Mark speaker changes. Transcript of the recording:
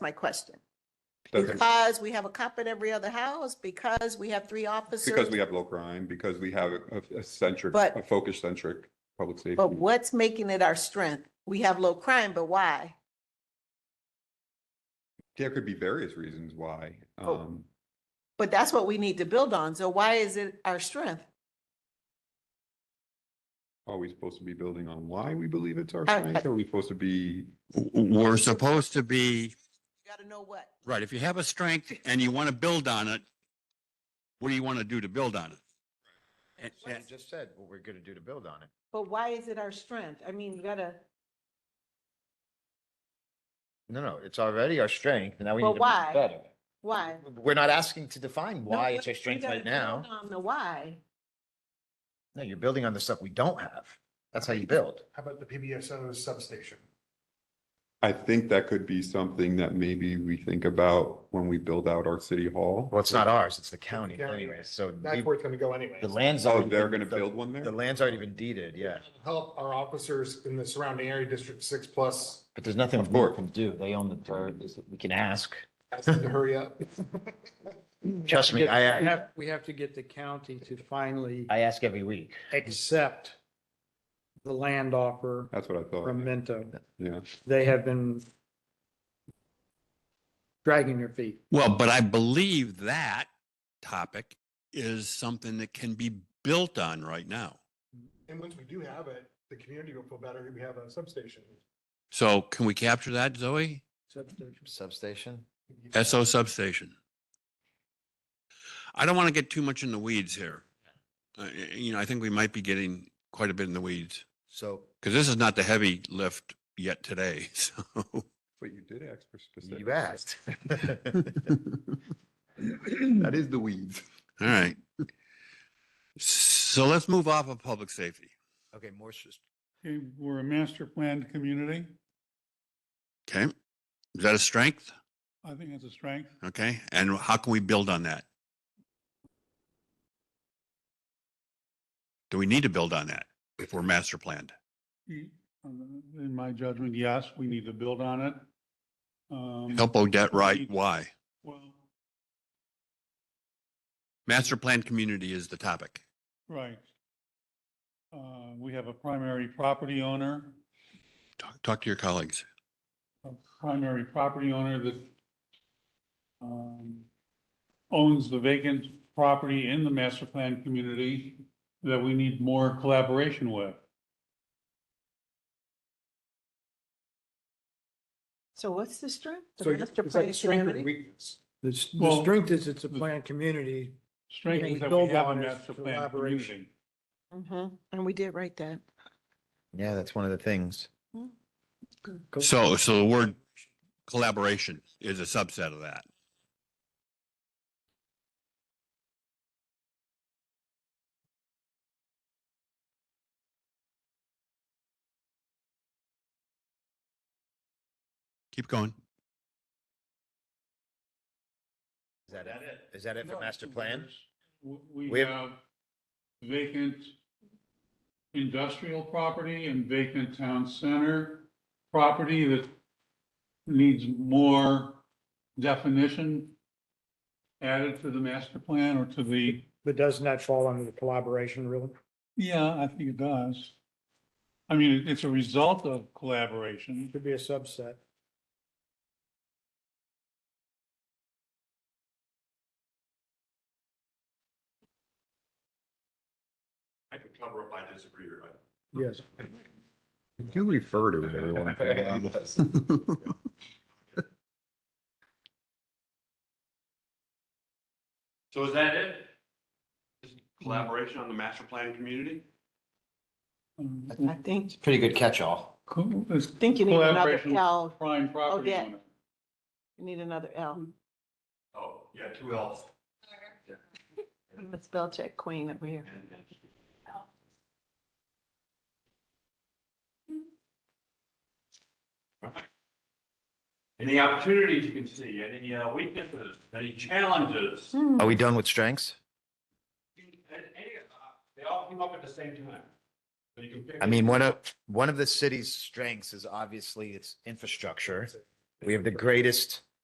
Speaker 1: my question.
Speaker 2: Doesn't-
Speaker 1: Because we have a cop in every other house, because we have three officers.
Speaker 2: Because we have low crime, because we have a- a centric,
Speaker 1: But-
Speaker 2: a focus centric public
Speaker 1: But
Speaker 2: safety.
Speaker 1: what's making it our strength? We have low crime, but why?
Speaker 2: There could be various reasons why.
Speaker 1: Oh.
Speaker 2: Um,
Speaker 1: But that's what we need to build on. So why is it our strength?
Speaker 2: Are we supposed to be building on why we believe it's our
Speaker 1: I-
Speaker 2: strength?
Speaker 1: I-
Speaker 2: Are we supposed to be,
Speaker 3: We're supposed to be,
Speaker 1: You gotta know what.
Speaker 3: right, if you have a strength and you want to build on it, what do you want to do to build on it? And-
Speaker 4: What you
Speaker 3: and-
Speaker 4: just said, what we're gonna do to build on it.
Speaker 1: But why is it our strength? I mean, you gotta,
Speaker 4: No, no, it's already our strength, and now we need
Speaker 1: But
Speaker 4: to make
Speaker 1: why?
Speaker 4: it better.
Speaker 1: why?
Speaker 4: We're not asking to define
Speaker 1: No,
Speaker 4: why
Speaker 1: we-
Speaker 4: it's our
Speaker 1: we
Speaker 4: strength
Speaker 1: gotta
Speaker 4: right now.
Speaker 1: build On the why.
Speaker 4: No, you're building on the stuff we don't have. That's how you build.
Speaker 5: How about the PBSO substation?
Speaker 2: I think that could be something that maybe we think about when we build out our city hall.
Speaker 4: Well, it's not ours, it's the county
Speaker 5: county.
Speaker 4: anyways, so
Speaker 5: That's
Speaker 4: we-
Speaker 5: where it's gonna go anyway.
Speaker 4: the land's.
Speaker 2: Oh,
Speaker 4: already
Speaker 2: they're
Speaker 4: been-
Speaker 2: going to
Speaker 4: the-
Speaker 2: build one there?
Speaker 4: The land's already been deeded, yeah,
Speaker 5: Help our officers in the surrounding area, District Six Plus,
Speaker 4: but there's nothing
Speaker 2: Of
Speaker 4: we
Speaker 2: course.
Speaker 4: can do. They own the dirt, we can ask.
Speaker 5: ask them to hurry up.
Speaker 4: Trust me,
Speaker 6: Get- we
Speaker 4: I,
Speaker 6: have- We have to get the county to finally
Speaker 4: I ask every week.
Speaker 6: accept the land offer
Speaker 2: That's what I thought.
Speaker 6: from Minto.
Speaker 2: Yeah.
Speaker 6: They have been dragging their feet.
Speaker 3: Well, but I believe that topic is something that can be built on right now.
Speaker 5: And once we do have it, the community will feel better if we have a substation.
Speaker 3: So can we capture that, Zoe?
Speaker 6: Substitution.
Speaker 4: Substation?
Speaker 3: SO substation. I don't want to get too much in the weeds here. Uh, y- You know, I think we might be getting quite a bit in the weeds
Speaker 4: So
Speaker 3: because this is not the heavy lift yet today. So
Speaker 2: But you did ask for specific.
Speaker 4: you asked.
Speaker 2: That is the weeds.
Speaker 3: All right. So let's move off of public safety.
Speaker 4: Okay, more, s-
Speaker 7: Okay, we're a master planned community.
Speaker 3: Okay. Is that a strength?
Speaker 7: I think that's a strength.
Speaker 3: Okay. And how can we build on that? Do we need to build on that if we're master planned?
Speaker 7: You- um, In my judgment, yes, we need to build on it. Um,
Speaker 3: Help Odette right why?
Speaker 7: Well,
Speaker 3: Master planned community is the topic.
Speaker 7: right. Uh, we have a primary property owner,
Speaker 3: Talk, talk to your colleagues.
Speaker 7: a primary property owner that um, owns the vacant property in the master plan community that we need more collaboration with.
Speaker 1: So what's the strength? The
Speaker 5: So
Speaker 1: master
Speaker 5: it's like
Speaker 1: plan
Speaker 5: strength or
Speaker 1: community?
Speaker 5: weakness.
Speaker 8: The, s- the
Speaker 7: Well-
Speaker 8: strength is it's a planned community.
Speaker 7: Strength
Speaker 8: We
Speaker 7: is that we
Speaker 8: build
Speaker 7: have a
Speaker 8: on is
Speaker 7: master plan
Speaker 8: collaboration.
Speaker 7: community.
Speaker 1: Mhm. And we did write that.
Speaker 4: yeah, that's one of the things.
Speaker 3: So, so the word collaboration is a subset of that. Keep going.
Speaker 4: Is that it? Is that it for master plan?
Speaker 7: W- We
Speaker 4: We have-
Speaker 7: have vacant industrial property and vacant town center property that needs more definition added to the master plan or to the,
Speaker 8: But doesn't that fall under the collaboration really?
Speaker 7: yeah, I think it does. I mean, it- it's a result of collaboration.
Speaker 8: Could be a subset.
Speaker 2: I could cover up, I disagree, right?
Speaker 8: Yes.
Speaker 2: You refer to it every once in a while.
Speaker 9: So is that it? Just Collaboration on the master plan community?
Speaker 7: Um,
Speaker 1: I think,
Speaker 4: Pretty good catch-all.
Speaker 7: co- it's
Speaker 1: I think you need another
Speaker 7: collaboration with
Speaker 1: L.
Speaker 7: Prime property
Speaker 1: Odette.
Speaker 7: owner.
Speaker 1: You need another L.
Speaker 9: Oh, yeah, two L's.
Speaker 1: Let's spell check queen over here.
Speaker 9: Any opportunities you can see, any uh, weaknesses, any challenges? Any-
Speaker 4: Are we done with strengths?
Speaker 9: any, uh, They all came up at the same time. So you can pick-
Speaker 4: I mean, one of, one of the city's strengths is obviously its infrastructure. We have the greatest